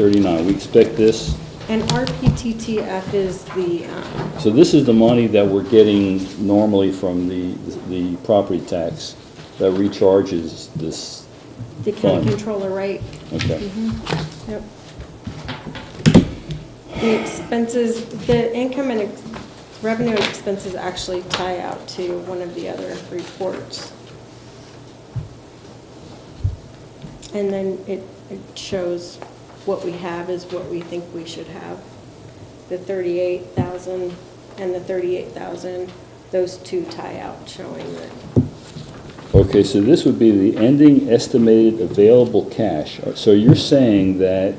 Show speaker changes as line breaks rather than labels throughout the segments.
839, we expect this,
And RPTTF is the, um,
so this is the money that we're getting normally from the, the property tax that recharges this,
the county
Fine.
Mm-hmm. controller, right?
okay.
Yep. The expenses, the income and ex- revenue and expenses actually tie out to one of the other reports. And then it, it shows what we have is what we think we should have. The thirty-eight thousand and the thirty-eight thousand, those two tie out showing that,
Okay, so this would be the ending estimated available cash. So you're saying that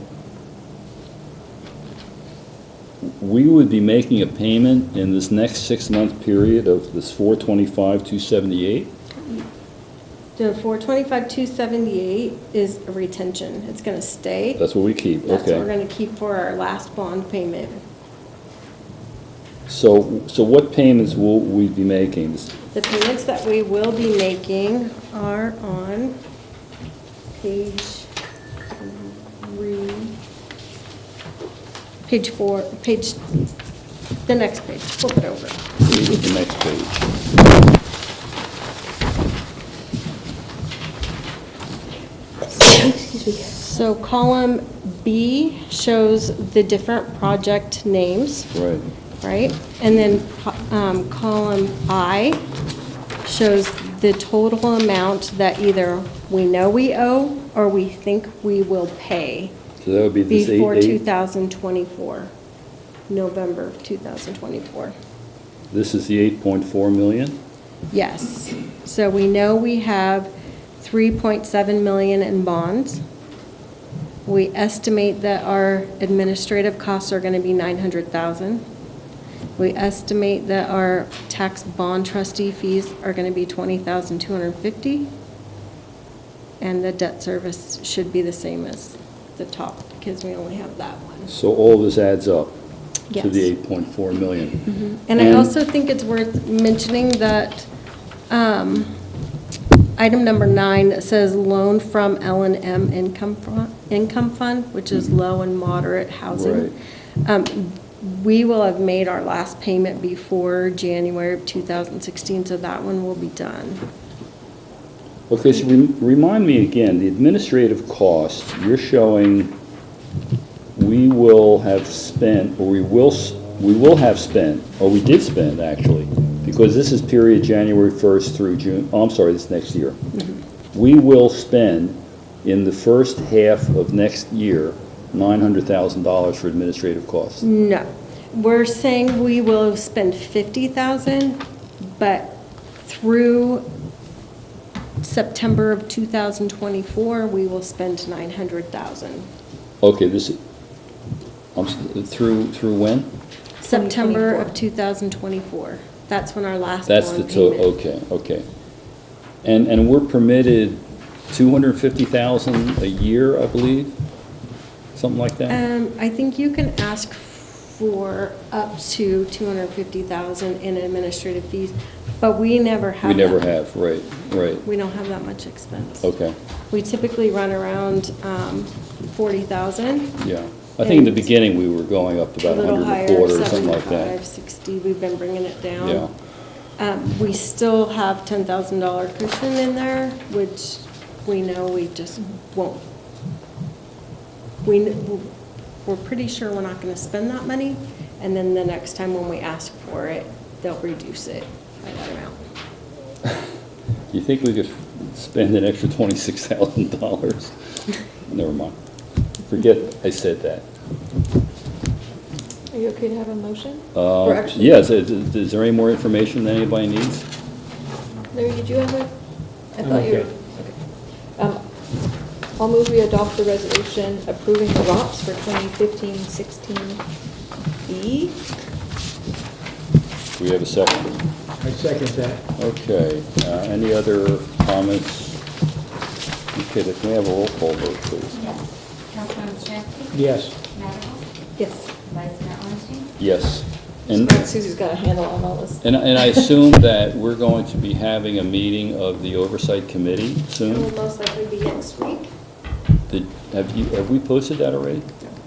we would be making a payment in this next six-month period of this 425, 278?
the four twenty-five, two seventy-eight is a retention. It's gonna stay.
That's what we keep,
That's what we're
okay.
going to keep for our last bond payment.
So, so what payments will we be making?
The payments that we will be making are on page three, page four, page, the next page, flip it over.
The next page.
So column B shows the different project names.
Right.
right? And then um, column I shows the total amount that either we know we owe or we think we will pay
So that would be this
before
88?
2024, November 2024.
This is the 8.4 million?
Yes. So we know we have 3.7 million in bonds. We estimate that our administrative costs are going to be 900,000. We estimate that our tax bond trustee fees are going to be 20,250. And the debt service should be the same as the top because we only have that one.
So all this adds up to the
Yes.
8.4 million?
And I also think it's worth mentioning that um, item number nine that says loan from L and M Income Fund, Income Fund, which is low and moderate housing. Um, We will have made our last payment before January of 2016, so that one will be done.
Okay, so rem- remind me again, the administrative cost, you're showing we will have spent, or we will, s- we will have spent, or we did spend, actually, because this is period January 1st through June, oh, I'm sorry, this next year. We will spend in the first half of next year, $900,000 for administrative costs.
No, we're saying we will spend 50,000, but through September of 2024, we will spend 900,000.
Okay, this, I'm, s- through, through when?
September of 2024, that's when our last
That's the
bond
total,
payment.
okay, okay. And, and we're permitted 250,000 a year, I believe? Something like that?
Um, I think you can ask for up to 250,000 in administrative fees, but we never have
We never
that.
have, right, right,
We don't have that much expense.
okay,
We typically run around um, 40,000.
yeah. I think in the
And-
beginning, we were going up to
A
about
little
100
higher,
and a quarter, or something like
75,
that.
60, we've been bringing it down.
Yeah.
Um, We still have $10,000 cushion in there, which we know we just won't. We, kn- we're pretty sure we're not going to spend that money, and then the next time when we ask for it, they'll reduce it by that amount.
You think we could spend an extra $26,000? Never mind. Forget I said that.
Are you okay to have a motion?
Uh,
Or actually-
Yes, is is there any more information that anybody needs?
Larry, did you have a? I
I'm
thought you were-
okay.
okay. Um, I'll move we adopt the resolution approving the ROPS for
E,
2015-16B.
We have a second.
I second that.
Okay, uh, any other comments? Okay, then can we have a roll call vote, please?
Yes. Councilmember Chapman?
Yes.
Madam?
Yes.
Vice Mayor Orenstein?
Yes. And,
Susie's got a handle on all this.
and and I assume that we're going to be having a meeting of the Oversight Committee
It will
soon?
most likely be next week.
Did, have you, have we posted that already?